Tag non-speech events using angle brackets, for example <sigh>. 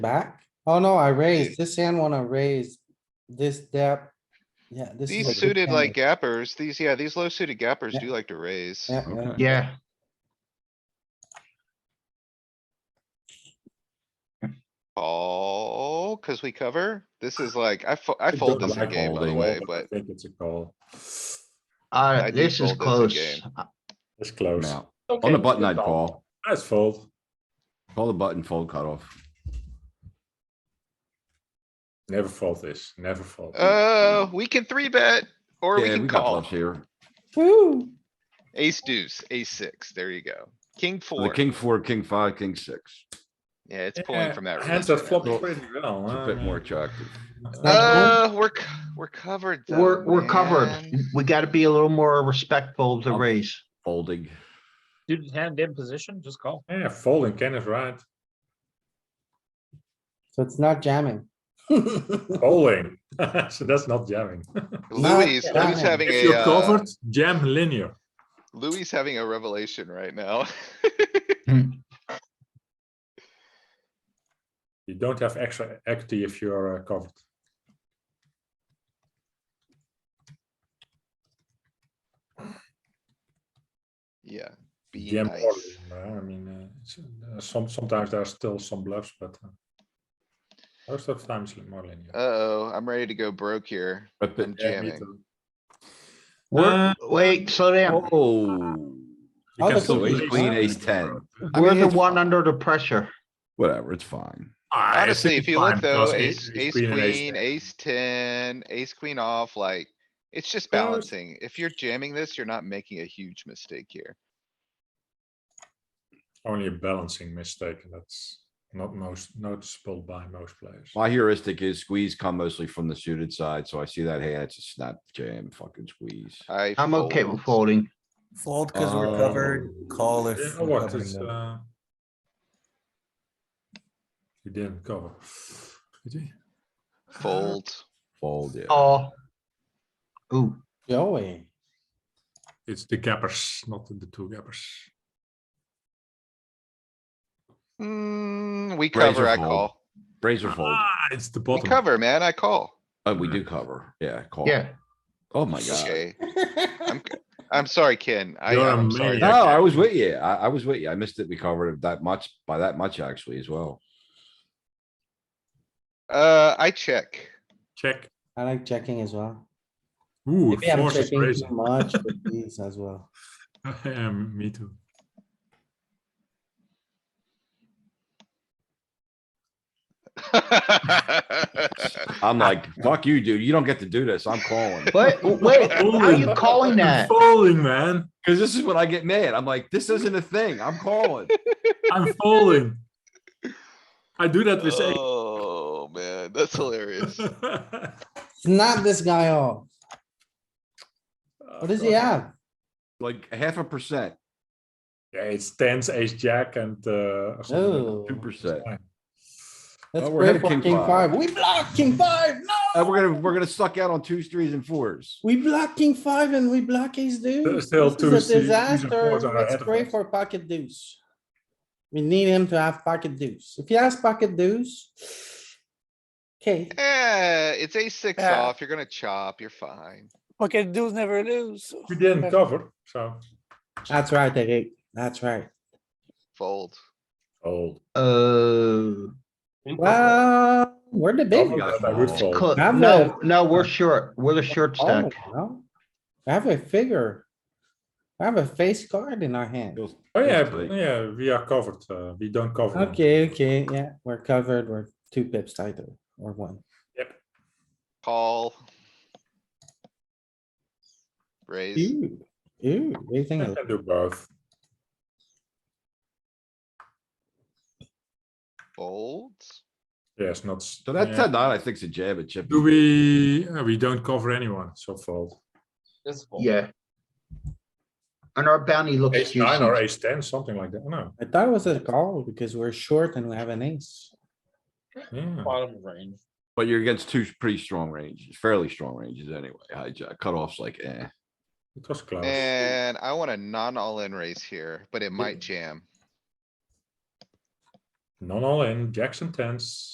back. Oh no, I raised. This hand wanna raise this depth. Yeah, this. is a These good suited hand. like gappers, these, yeah, these low suited gappers Yeah. do like to raise. Yeah, yeah. Okay, Yeah, Oh, cuz we cover. This is like, I fo- I don't fold this in like game by the holding, way, <laughs> I but think it's a call. I uh, do this is fold close. this in Uh, It's close. Now, on the button, I'd call. That's fold. Call the button, fold cutoff. Never fold this, never fold. uh, we can three bet or we Yeah, can we got call. bluffs here. Woo. Ace deuce, ace six, there you go. King The four. king four, king five, king six. Yeah, it's pulling Yeah, from that. Hands river are now. flopped pretty well. It's a bit huh? more attractive. Not Uh, we're, c- we're covered though. We're, we're covered. Oh, man. We gotta be a little more respectful of the Oh. Um, race. Folding. Dude, hand in position, just call. Yeah, folding Ken is right. So it's not jamming. Folding. <laughs> So that's not jamming. Louis, Yeah. Louis having If a, you're uh, covered, jam linear. Louis having a revelation right now. <laughs> You don't have extra equity if you're uh, covered. Yeah, be Jam nice. calling, uh, I mean, uh, it's, uh, some, sometimes there are still some bluffs, but uh, most of the time it's more linear. Uh-oh, I'm ready to go broke here. But I'm the- Yeah, me Uh, jamming. too. We're, Uh, wait, slow down. Oh, You Oh, can the still queen- raise queen, it. ace ten. I We're mean, the it's one fine. under the pressure. Whatever, it's fine. Ah, I Honestly, think if it's you fine look because though, ace, ace and queen, ten. ace ten, ace queen off, like, it's just Yeah. balancing. If you're jamming this, you're not making a huge mistake here. Only a balancing mistake, and that's not most noticeable by most players. My heuristic is squeeze come mostly from the suited side, so I see that hand, it's a snap jam, fucking squeeze. I. I'm okay with fold. folding. Fold because we're Oh. covered, call if. Yeah, we're what covering is, them. uh, You didn't cover. Did you? Fold. Fold, yeah. Oh. Ooh, Joey. It's the gappers, not the two gappers. Hmm, we Raise or cover, I fold? call. Razor fold. Ah, it's the We bottom. cover, man, I call. Oh, we do cover. Yeah, call. yeah. Oh my god. Okay, I'm sorry, Ken. I, You're a I'm sorry. No, maniac. about I was with you. I, I was with you. I missed it. We covered it that much, by that much actually as well. that. Uh, I check. Check. <laughs> I like checking as well. Ooh, Maybe I'm force is checking too <laughs> raising. much with <laughs> these as well. Um, me too. I'm like, fuck you, dude. You don't get to do this. I'm calling. <laughs> Wait, wait, how are you calling that? Falling, man. Cause this is when I get mad. I'm like, this isn't a thing. I'm calling. I'm falling. I do that with eight. Oh, man, that's hilarious. <laughs> Snap this guy off. What does <laughs> he have? Like half a percent. Yeah, it's tens, ace, jack, and uh, Oh. 2%. Let's Oh, we're play ahead of for king king five. five. We block king five. And No. Uh, we're gonna, we're gonna suck out on twos, threes and fours. We block king five and we block ace deuce. still This two is C- a these are disaster. fours are ahead Let's of pray us. for pocket deuce. We need him to have pocket deuce. If he has pocket deuce. Okay, Eh, it's ace six Yeah. off. You're gonna chop. You're fine. Okay, dudes never lose. We didn't cover, so. that's right, Eric. That's right. Fold. Fold. Uh, Well, we're the big. Oh, ones. I would fold. cl- I'm no, no, we're short. We're the short Oh, stack. no. I have a figure. I have a face card in our hand. Feels- Oh yeah, feels b- tight. yeah, we are covered. Uh, we don't cover. them. Okay, okay, yeah, we're covered. We're two pips tighter or one. Call. Raise. Ew, ew, what do you I think? can do both. Fold. Yes, not. s- So that yeah. ten nine, I think, is a jab at chip. Do we? uh, we don't cover anyone, so fold. Just fold. Yeah. And our bounty looks Oh. Ace nine or juicy. ace ten, something like that. No. I thought it was a call because we're short and we have an ace. Yeah. Bottom of range. But you're against two pretty strong ranges, fairly strong ranges anyway. Hijack, cutoffs like eh. It was close. And I want a non all in raise here, but it might jam. Non all in. Jackson tens.